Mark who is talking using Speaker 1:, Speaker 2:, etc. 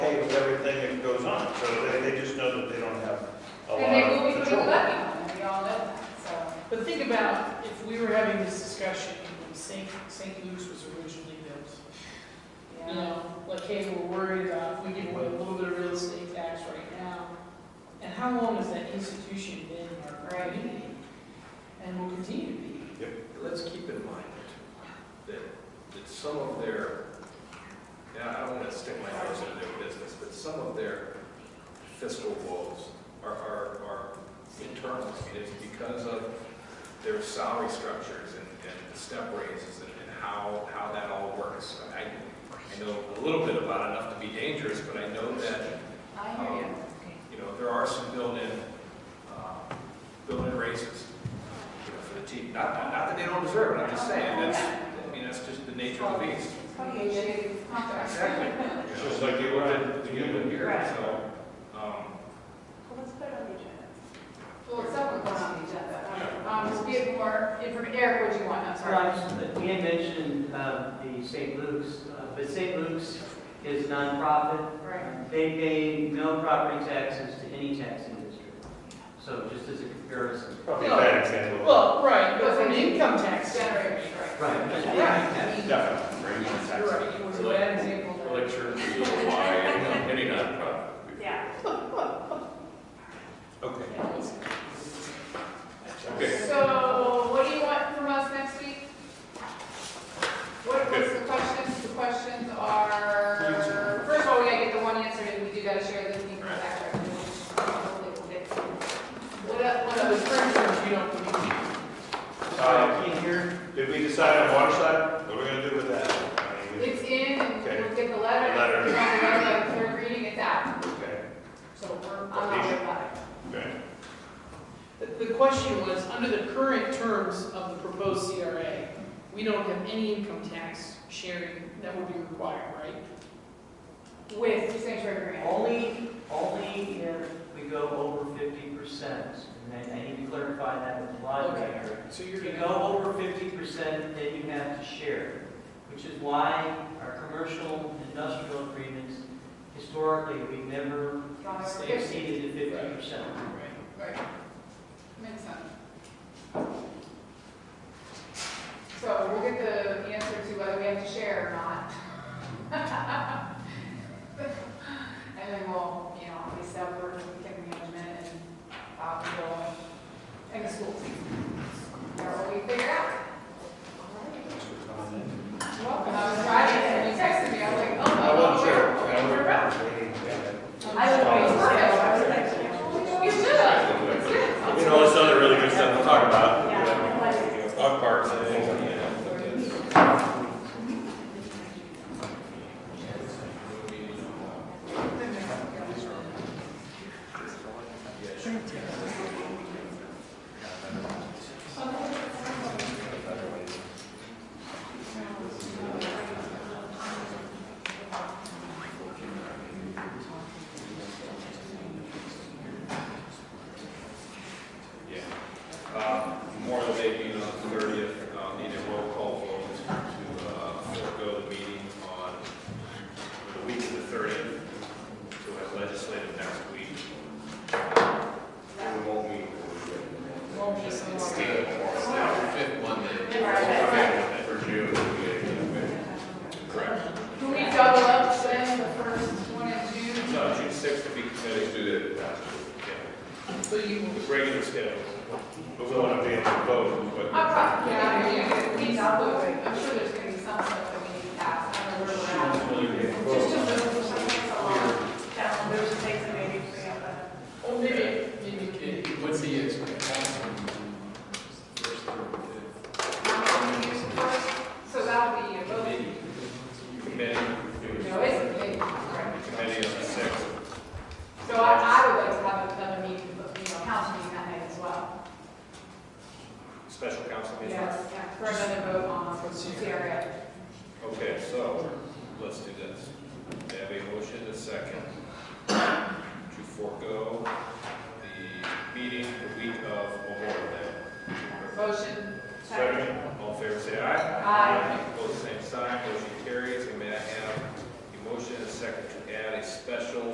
Speaker 1: let's keep in mind that, that some of their, and I don't want to stick my nose into their business, but some of their fiscal woes are, are, are internal. I mean, It's because of their salary structures and, and the step raises and and how, how that all works. I, I know a little bit about it, enough to be dangerous, but I know that
Speaker 2: I
Speaker 1: hear you.
Speaker 2: Okay.
Speaker 1: you know, there are some built-in, uh, built-in raises you know, for the team. Not, not not that they don't deserve it, I'm just saying, that's, I mean, that's just the nature of the beast.
Speaker 2: Probably a shady contract.
Speaker 1: Exactly.
Speaker 3: It's just like you wanted
Speaker 1: The
Speaker 3: to
Speaker 1: human
Speaker 3: give it.
Speaker 1: year, so, um,
Speaker 4: Well, let's put it on the agenda.
Speaker 2: Well, it's someone going on the agenda. Um, just get more information. Eric, what do you want? I'm
Speaker 5: Well, I
Speaker 2: sorry.
Speaker 5: just- we had mentioned uh, the St. Luke's, uh, but St. Luke's is nonprofit.
Speaker 2: Right.
Speaker 5: They pay no property taxes to any taxing district. So just as a comparison.
Speaker 3: Probably a bad example.
Speaker 6: Well, right, but from an income tax standpoint,
Speaker 2: Generation, right.
Speaker 5: Right.
Speaker 3: Definitely, bring in
Speaker 6: you're
Speaker 3: tax.
Speaker 6: right, it was a bad example. there.
Speaker 3: Lecture, why, any nonprofit.
Speaker 4: Yeah.
Speaker 1: okay.
Speaker 3: Okay.
Speaker 2: So what do you want from us next week? What was the questions? The questions are, first of all, we gotta get the one answer, and we do gotta share this meeting with that recommendation. Hopefully we'll get some. What, el- what
Speaker 6: One of the
Speaker 2: else?
Speaker 6: first, you don't believe.
Speaker 3: Uh,
Speaker 5: Can't hear.
Speaker 3: Did we decide on water side? What are we gonna do with that? I mean,
Speaker 2: It's in, and we'll get the letter.
Speaker 3: The letter.
Speaker 2: If you want the letter, like, third reading, it's out.
Speaker 3: we- Okay,
Speaker 2: So we're on our way about it.
Speaker 3: okay.
Speaker 6: The the question was, under the current terms of the proposed CRA, we don't have any income tax sharing that would be required, right?
Speaker 2: With the sanctuary grant.
Speaker 5: Only, only if we go over fifty percent. And I- I need to clarify that with the library.
Speaker 6: So you're
Speaker 5: If you
Speaker 6: gonna
Speaker 5: go over fifty percent, then you have to share, which is why our commercial and industrial agreements, historically, we never
Speaker 2: Gone over fifty.
Speaker 5: exceeded the fifty percent.
Speaker 6: Right.
Speaker 2: Right. Makes sense. So we'll get the answer to whether we have to share or not. And then we'll, you know, we separate with the management and, uh, we'll, and the schools. That's what we figure out. Well, I was driving and you texted me, I was like, oh.
Speaker 3: I wasn't sure. I
Speaker 2: We're out.
Speaker 4: I would
Speaker 2: Oh,
Speaker 4: wait.
Speaker 2: we're out.
Speaker 4: Yeah.
Speaker 2: We should. It's good.
Speaker 3: You know, it's other really good stuff to talk about.
Speaker 4: Yeah.
Speaker 3: Dog parks and things, like that.
Speaker 1: Uh, Memorial Day being on the thirtieth, uh, need a roll call vote to, uh, forego the meeting on the week of the thirtieth. So we have legislative next week.
Speaker 3: We won't meet.
Speaker 6: Won't be some more.
Speaker 3: Okay, For June. Correct.
Speaker 2: Can we double up then the first one in June?
Speaker 1: No, June sixth to be committed to
Speaker 3: Do that.
Speaker 1: the
Speaker 6: So you will
Speaker 1: regular schedule.
Speaker 3: But we wanna be able to vote,
Speaker 2: I'm
Speaker 3: but.
Speaker 2: probably, yeah, I mean, we can double it. I'm sure there's gonna be something.